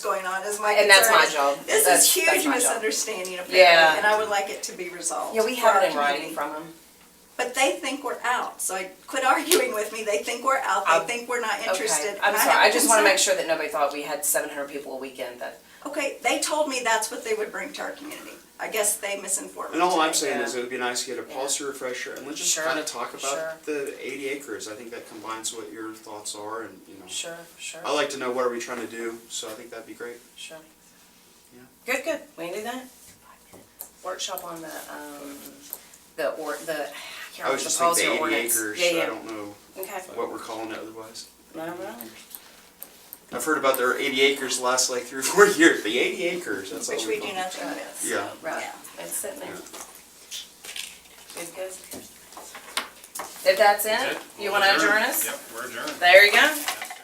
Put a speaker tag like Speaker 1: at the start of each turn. Speaker 1: going on is my concern.
Speaker 2: And that's my job.
Speaker 1: This
Speaker 2: That's-
Speaker 1: is
Speaker 2: that's
Speaker 1: huge
Speaker 2: my job.
Speaker 1: misunderstanding apparently,
Speaker 2: Yeah.
Speaker 1: and I would like it to be resolved.
Speaker 2: Yeah, we
Speaker 1: for
Speaker 2: have
Speaker 1: our
Speaker 2: it in writing
Speaker 1: community.
Speaker 2: from them.
Speaker 1: But they think we're out, so I- quit arguing with me. They think we're out,
Speaker 2: I-
Speaker 1: they think we're not interested.
Speaker 2: Okay. I'm
Speaker 1: and
Speaker 2: sorry,
Speaker 1: have
Speaker 2: I just wanna
Speaker 1: concern.
Speaker 2: make sure that nobody thought we had seven hundred people a weekend that,
Speaker 1: Okay, they told me that's what they would bring to our community. I guess they misinformed me.
Speaker 3: And all I'm
Speaker 1: today.
Speaker 3: saying is
Speaker 2: yeah.
Speaker 3: it would be nice to get a policy refresher and let's just
Speaker 2: Sure,
Speaker 3: kind of talk
Speaker 2: sure.
Speaker 3: about the eighty acres. I think that combines what your thoughts are and, you know.
Speaker 2: sure, sure,
Speaker 3: I like to know what are we trying to do, so I think that'd be great.
Speaker 2: sure.
Speaker 3: Yeah.
Speaker 2: Good, good, we can do that. Workshop on the, um, the, or, the, I can't
Speaker 3: I
Speaker 2: remember
Speaker 3: was
Speaker 2: the
Speaker 3: just thinking
Speaker 2: policy
Speaker 3: the
Speaker 2: or
Speaker 3: eighty
Speaker 2: ordinance.
Speaker 3: acres,
Speaker 2: Yeah,
Speaker 3: I
Speaker 2: yeah.
Speaker 3: don't know
Speaker 2: Okay.
Speaker 3: what we're calling it otherwise.
Speaker 2: No, no.
Speaker 3: I've heard about their eighty acres last like three or four years, the eighty acres, that's all we
Speaker 1: Which
Speaker 3: call
Speaker 1: we do
Speaker 3: it.
Speaker 1: nothing with.
Speaker 3: Yeah.
Speaker 2: Right,
Speaker 1: Yeah.
Speaker 2: it's sitting there.
Speaker 3: Yeah.
Speaker 2: Good, good. If that's it, you wanna
Speaker 4: We'll adjourn.
Speaker 2: adjourn us?
Speaker 4: Yep, we're adjourned.
Speaker 2: There you go.